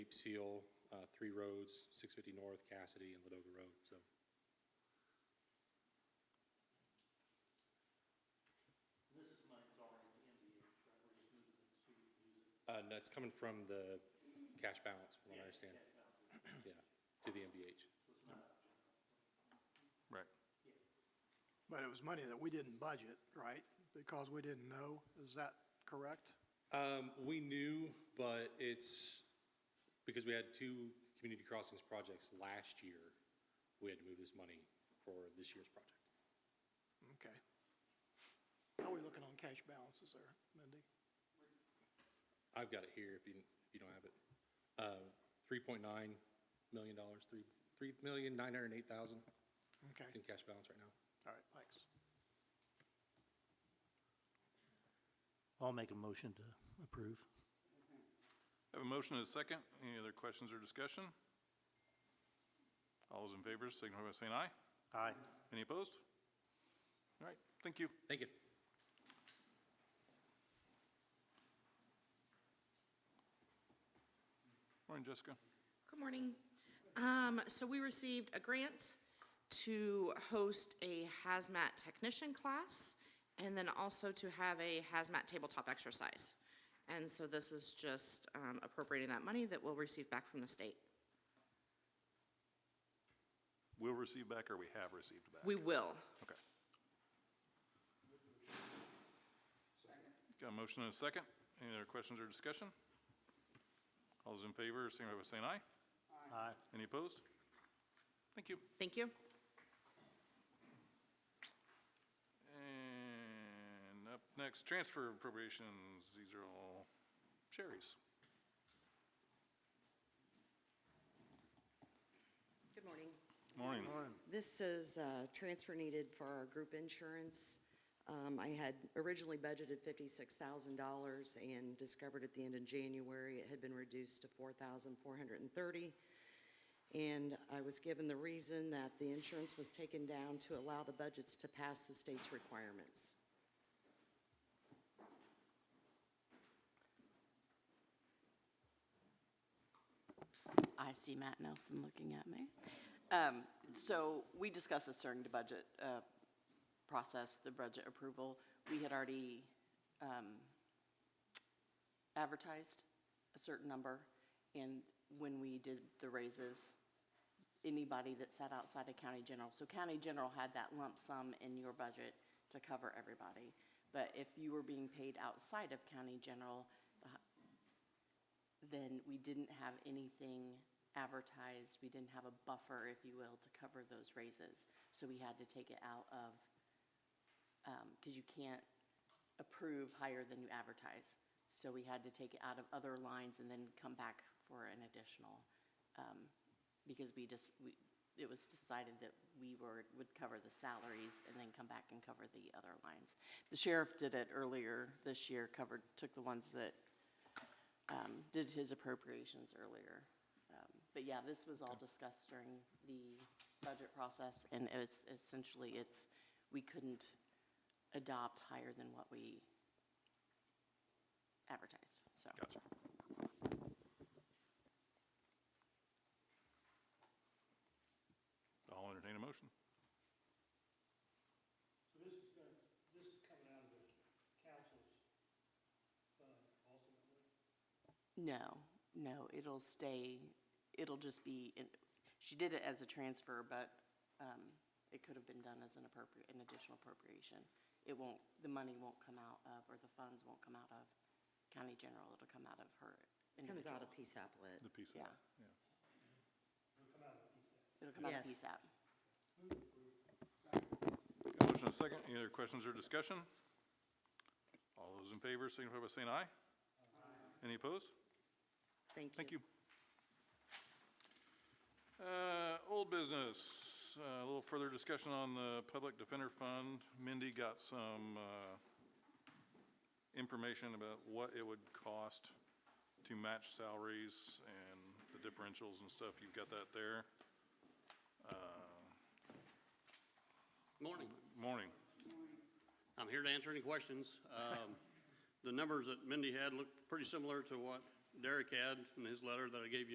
Cape Seal, uh, three roads, 650 North, Cassidy, and Ladoga Road, so. This is money that's already in the MDH, right, we're just moving it to use it. Uh, no, it's coming from the cash balance, from what I understand, Cash balance, yeah, to the MBH. so it's not, Right. yeah. But it was money that we didn't budget, right? Because we didn't know, is that correct? Um, we knew, but it's, because we had two community crossings projects last year, we had to move this money for this year's project. Okay. How are we looking on cash balances there, Mindy? I've got it here if you, if you don't have it. Uh, $3.9 million, dollars, three, $3,908,000 in Okay, cash balance right now. all right, thanks. I'll make a motion to approve. Have a motion and a second. Any other questions or discussion? All those in favor signify by saying aye. Aye. Any opposed? All right, thank you. Thank you. Morning, Jessica. Good morning. Um, So we received a grant to host a hazmat technician class and then also to have a hazmat tabletop exercise. And so this is just um, appropriating that money that we'll receive back from the state. We'll receive back or we have received back? We will. Okay. Got a motion and a second. Any other questions or discussion? All those in favor signify by saying aye. Aye. Any opposed? Thank you. Thank you. And up next, transfer appropriations. These are all Sherry's. Good morning. Morning. This is a transfer needed for our group insurance. Um, I had originally budgeted $56,000 and discovered at the end of January, it had been reduced to $4,430. And I was given the reason that the insurance was taken down to allow the budgets to pass the state's requirements. I see Matt Nelson looking at me. Um, So we discussed this during the budget uh, process, the budget approval. We had already um, advertised a certain number, and when we did the raises, anybody that sat outside of county general, so county general had that lump sum in your budget to cover everybody. But if you were being paid outside of county general, the h- then we didn't have anything advertised, we didn't have a buffer, if you will, to cover those raises. So we had to take it out of, because you can't approve higher than you advertise. So we had to take it out of other lines and then come back for an additional, um, because we just, we, it was decided that we were, would cover the salaries and then come back and cover the other lines. The sheriff did it earlier this year, covered, took the ones that um, did his appropriations earlier. Um, But yeah, this was all discussed during the budget process, and it was essentially, it's, we couldn't adopt higher than what we advertised, so. Gotcha. I'll entertain a motion. So this is going, this is coming out of the council's fund ultimately? No, no, it'll stay, it'll just be, in- she did it as a transfer, but um, it could have been done as an appropriate, an additional appropriation. It won't, the money won't come out of, or the funds won't come out of county general, it'll come out of her Comes out of individual. Peace Applet. The piece of Yeah. that. Yeah. It'll come out of the piece that. It'll come Yes. out of Got PSAP. a motion and a second. Any other questions or discussion? All those in favor signify by saying aye. Any opposed? Thank you. Thank you. Uh, Old business, uh, a little further discussion on the Public Defender Fund. Mindy got some uh, information about what it would cost to match salaries and the differentials and stuff. You've got that there. Uh, Morning. Morning. I'm here to answer any questions. Um, The numbers that Mindy had looked pretty similar to what Derek had in his letter that I gave you.